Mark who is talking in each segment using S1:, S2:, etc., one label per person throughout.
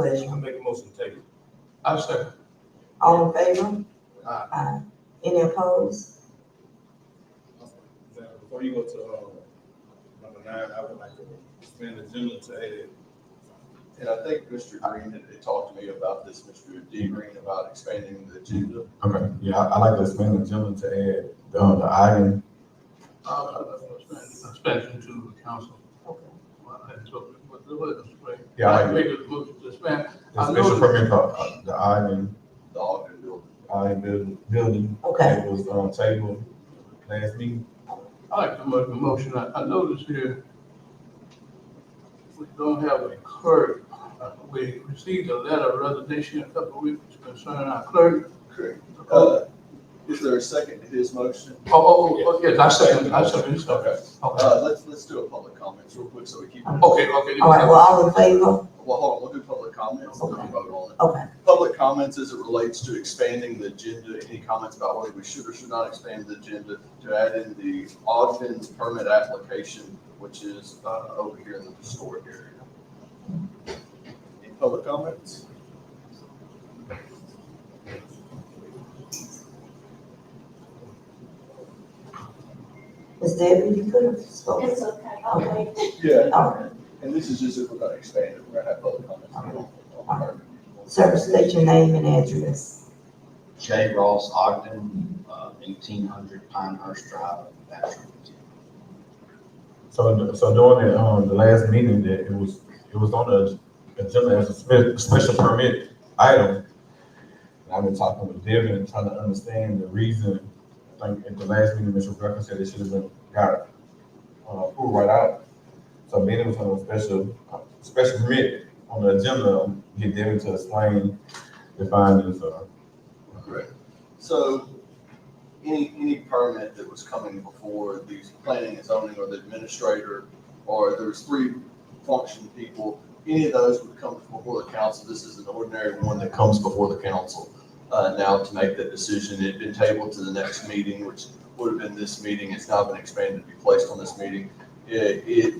S1: pleasure.
S2: I make a motion to table.
S3: I second.
S1: All in favor?
S3: Aye.
S1: Any opposed?
S2: Now, before you go to, uh, number nine, I would like to expand the agenda to add
S4: And I think Mr. Green had had talked to me about this, Mr. D. Green, about expanding the agenda.
S5: Okay, yeah, I, I like to expand the agenda to add, uh, the item,
S3: Uh, Suspension to the council.
S1: Okay.
S3: Well, that's what- what- what is great.
S5: Yeah, I like
S3: Make a motion to suspend.
S5: the
S3: I
S5: special
S3: noticed-
S5: permit for, uh, the item,
S4: The Ogden building.
S5: item building, building
S1: Okay,
S5: that was on table last meeting.
S3: I like to make a motion, I, I noticed here, we don't have a clerk. Uh, We received a letter of resignation a couple of weeks concerning our clerk.
S4: Correct.
S3: Oh,
S4: Uh, Is there a second to his motion?
S3: oh, oh, yes, I second, I second, it's okay. Okay,
S4: Uh, let's, let's do a public comments real quick so we keep.
S1: Okay.
S3: okay, okay.
S1: all right, well, all in favor?
S4: Well, hold on, we'll do public comments and then we'll vote on it.
S1: Okay,
S4: Public comments as it relates to expanding the agenda, any comments about whether we should or should not expand the agenda to add in the Ogden permit application, which is, uh, over here in the historic area. Any public comments?
S1: Ms. Debbie, you could have spoken.
S6: It's okay, I'll wait.
S4: Yeah.
S1: All right,
S4: And this is just if we're gonna expand it, we're gonna have public comments.
S1: sir, state your name and address.
S7: J. Ross Ogden, uh, eighteen hundred Pinehurst Drive, Bastrop, Virginia.
S5: So, so during the, um, the last meeting, that it was, it was on the agenda as a spe- special permit item. And I've been talking with Devin and trying to understand the reason, I think at the last meeting, Mr. Greco said it should have been, got, uh, approved right out. So being it was on a special, uh, special permit on the agenda, um, get Devin to explain the findings, uh,
S4: Correct. So any, any permit that was coming before the planning and zoning or the administrator, or there was three function people, any of those would come before the council. This is an ordinary one that comes before the council. Uh, now to make that decision, it had been tabled to the next meeting, which would have been this meeting. It's now been expanded to be placed on this meeting. It, it,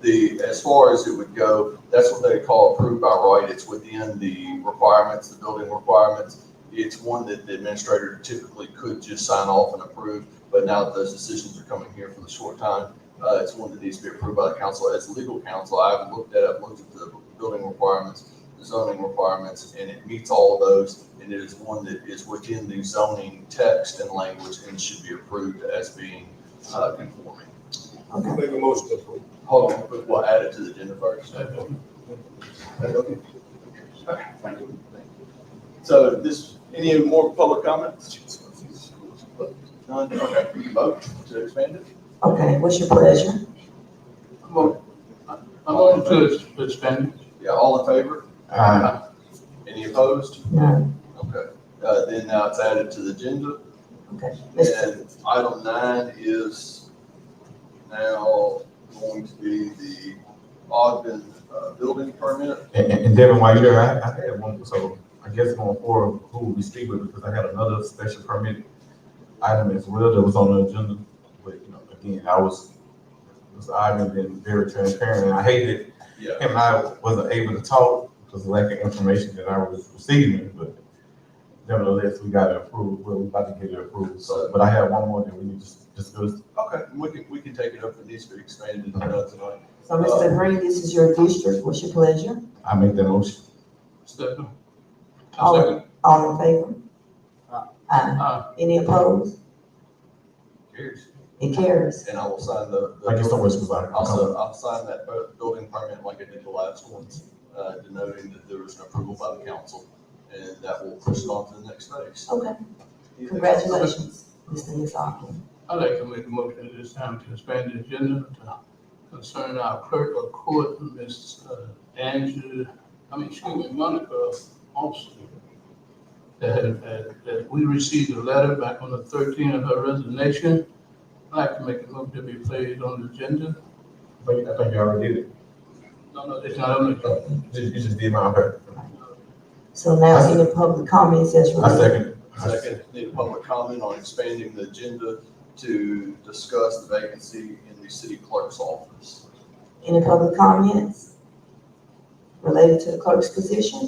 S4: the, as far as it would go, that's what they call approved by right. It's within the requirements, the building requirements. It's one that the administrator typically could just sign off and approve, but now that those decisions are coming here for the short time, uh, it's one that needs to be approved by the council. As legal counsel, I haven't looked at, it. I've looked at the building requirements, the zoning requirements, and it meets all of those. And it is one that is within the zoning text and language and should be approved as being, uh, conforming.
S1: Okay,
S2: Make a motion to approve.
S4: Hold on, but we'll add it to the agenda first. So this, any more public comments? None, okay, we can vote to expand it?
S1: okay, what's your pleasure?
S3: I'm on- Uh, I'm on to suspend.
S4: Yeah, all in favor?
S5: uh,
S4: Any opposed?
S1: No,
S4: Okay, uh, then now it's added to the agenda.
S1: okay. Mr.
S4: And item nine is now going to be the Ogden, uh, building permit.
S5: And, and and Devin, while you're there, I, I had one, so I guess going forward, who will we speak with, because I had another special permit item as well that was on the agenda, but, you know, again, I was, Mr. Ogden been very transparent, and I hated,
S4: Yeah.
S5: him and I wasn't able to talk because of lack of information that I was receiving, but nevertheless, we got it approved, we're about to get it approved, so, but I had one more that we need to discuss.
S4: Okay, we can, we can take it up, it needs to be expanded, and done tonight.
S1: So,
S3: Uh,
S1: Mr. Green, this is your district, what's your pleasure?
S5: I make that motion.
S3: Second. I
S1: All-
S3: second.
S1: All in favor? Aye.
S3: Uh,
S1: Any opposed?
S4: Cheers.
S1: It carries.
S4: And I will sign the. the-
S5: Thank you so much, Mr. Ogden.
S4: I'll sign, I'll sign that bu- building permit like I did the last ones, uh, denoting that there was an approval by the council, and that will push it on to the next phase.
S1: Okay,
S4: Anything else?
S1: congratulations, Mr. Nisaki.
S3: I'd like to make a motion at this time to suspend the agenda to concern our clerk of court, Ms. Angela, I mean, excuse me, Monica Austin. That, had- that, that we received a letter back on the thirteenth of her resignation. I'd like to make a motion to be placed on the agenda.
S5: I think, I think you already did
S3: No, no, it's not on the agenda.
S5: it, you just, you just did my, okay,
S1: So now any public comments as
S5: I
S1: related?
S5: second.
S4: Second, need a public comment on expanding the agenda to discuss the vacancy in the city clerk's office.
S1: Any public comments? related to the clerk's position